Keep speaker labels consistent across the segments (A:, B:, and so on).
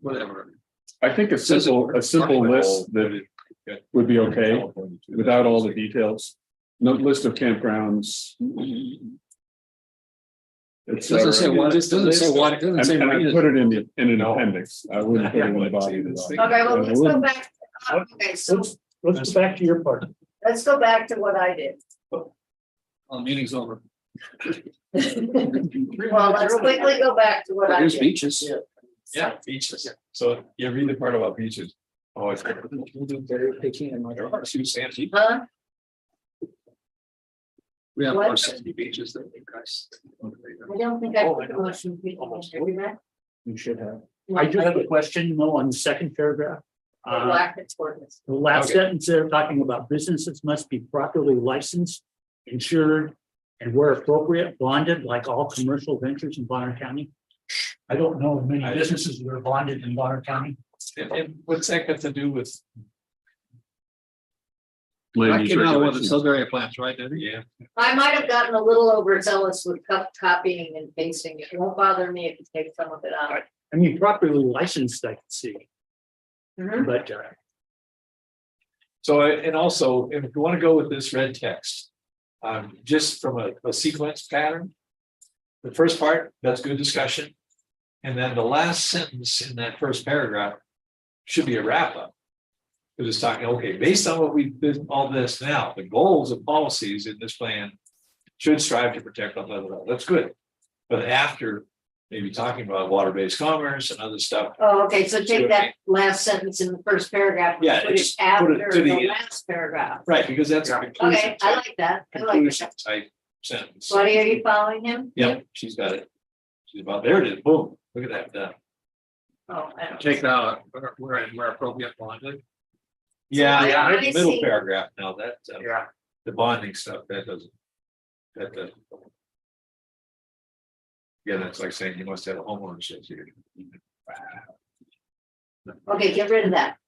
A: whatever.
B: I think a simple, a simple list that would be okay without all the details. No list of campgrounds. et
A: It Doesn't say
B: cetera.
A: what, it doesn't say what, it doesn't
B: And
A: say.
B: and
A: what
B: I
A: it is.
B: put it in the, in an appendix. I wouldn't put it in the body. of the document.
C: Okay, well,
B: I
C: let's go
B: wouldn't.
C: back. to- Okay, so
D: Let's, let's go back to your part.
C: let's go back to what I did.
A: Oh, meeting's over.
C: Well, let's quickly go back to what I
A: There's
C: did.
A: beaches. Yeah, beaches.
E: So you read the part about beaches. Oh, it's. There are two sanity.
C: Huh?
A: We have
C: What?
A: our sandy beaches that you guys.
C: I don't think I.
D: Oh, I
C: put the motion people in there.
D: You should have. I do have a question, Mo, on the second paragraph.
E: Uh-huh.
D: Uh,
C: Black and tortoise.
D: the last
A: Okay.
D: sentence there talking about businesses must be properly licensed, insured, and where appropriate, bonded like all commercial ventures in Bonner County. I don't know of many businesses that are bonded in Bonner County.
E: And, and what's that got to do with?
B: Land
A: I
B: use
A: came out with the
B: regulations.
A: Sudbury plants, right, Debbie?
E: Yeah.
C: I might have gotten a little overzealous with co- copying and pasting. It won't bother me if you take some of it out.
D: I mean, properly licensed, I can see,
C: Mhm.
D: but uh,
E: So, I- and also, if you want to go with this red text, um, just from a, a sequence pattern. The first part, that's good discussion. And then the last sentence in that first paragraph should be a wrap up. Because it's talking, okay, based on what we've, been- all this now, the goals and policies in this plan should strive to protect, blah, blah, blah, blah. that's good. But after maybe talking about water-based commerce and other stuff,
C: Oh, okay, so take
E: Sure.
C: that last sentence in the first paragraph. and
E: Yeah,
C: Put it
E: just put it
C: after
E: to the
C: the
E: end.
C: last paragraph.
E: right, because that's. a
C: Okay,
E: conclusion
C: I
E: type-
C: like that. I like
E: Conclusion
C: that.
E: type sentence.
C: Buddy, are you following him?
E: Yep, she's got it. She's about, there it is, boom, look at that, done.
C: Oh, I don't.
A: Take that out, where- where, where appropriate, bonded.
E: Yeah,
C: I-
E: yeah,
C: I
E: middle
C: see.
E: paragraph now, that, uh,
A: Yeah.
E: the bonding stuff, that doesn't. That doesn't. Yeah, that's like saying you must have a homeownership here.
C: Okay, get rid of that.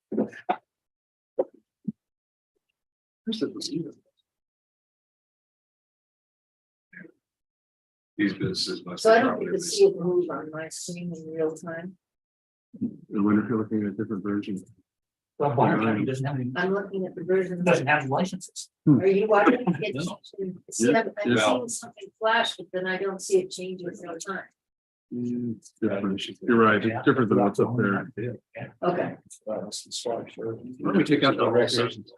E: These businesses must.
C: So I don't
E: probably
C: even see it move on my screen in real time.
B: I wonder if you're looking at a different version.
D: well, Bonner County doesn't have any,
C: I'm looking at the version.
D: doesn't have licenses.
C: Are you watching? It's-
E: No.
C: See, I'm I'm
E: Yeah.
C: seeing something flash, but then I don't see it change in real time.
B: Mm, it's different. You're right, it's different than what's up there.
C: Okay,
A: Why don't we take out the whole sentence?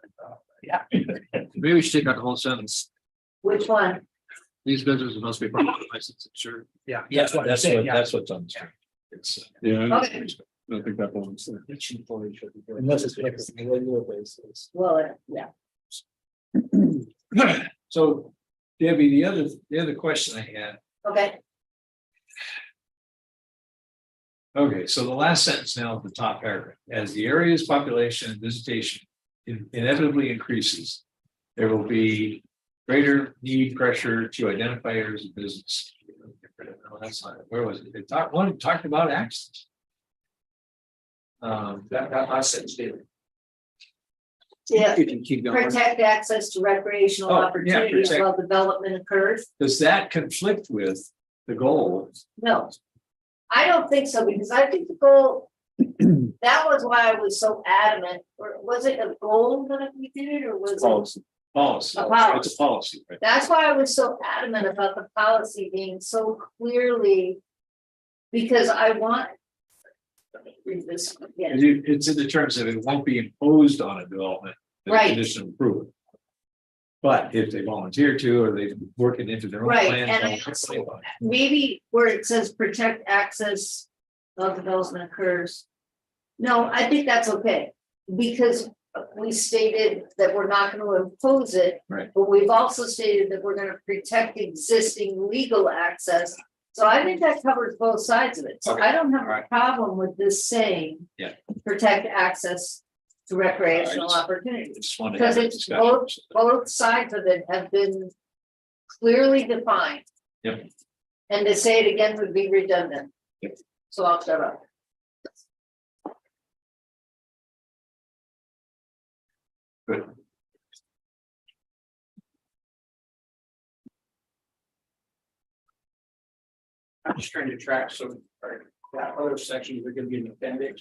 D: Yeah.
A: Maybe we should take out the whole sentence.
C: which one?
A: These businesses must be properly licensed, sure.
D: Yeah,
E: Yeah,
D: that's what I'm
E: that's
D: saying,
E: what,
D: yeah.
E: that's what's on the screen. It's, uh,
B: Yeah, I don't
C: Okay,
B: I think that belongs there.
D: Unless it's.
C: well, uh, yeah,
E: uh, so Debbie, the other, the other question I had
C: okay,
E: Okay, so the last sentence now at the top paragraph, as the area's population and visitation in- inevitably increases. There will be greater need pressure to identify areas of business. No, That's not, it. where was it? It talked, one talked about access. Um, that, that last sentence, David.
C: yeah,
A: You can keep going.
C: protect access to recreational
E: Oh, yeah,
C: opportunities
E: protect.
C: while development occurs.
E: does that conflict with the goal?
C: No. I don't think so, because I think the goal, that was why I was so adamant, or was it a goal that we did, or was it?
B: Policy.
E: Policy,
C: A policy.
E: it's a policy, right?
C: That's why I was so adamant about the policy being so clearly. Because I want. Let me Read this again,
E: You- It's in the terms of it won't be imposed on a development. as a
C: Right.
E: Condition of approval. But if they volunteer to, or they work it into their own
C: Right,
E: plan.
C: and I
E: don't
C: also-
E: complain about it.
C: maybe where it says protect access of development occurs. No, I think that's okay, because we stated that we're not gonna impose it.
E: Right.
C: But we've also stated that we're gonna protect existing legal access, so I think that covers both sides of it, so I don't have a
E: alright.
C: problem with this saying.
E: Yeah.
C: Protect access to recreational
E: Alright.
C: opportunities
E: I Just wanted to
C: because
E: have that
C: it's
E: discussion.
C: both, both sides of it have been clearly defined.
E: Yep.
C: And to say it again would be redundant.
E: Yep.
C: So I'll shut up.
D: I'm just trying to track some, that other section, you're gonna be in appendix.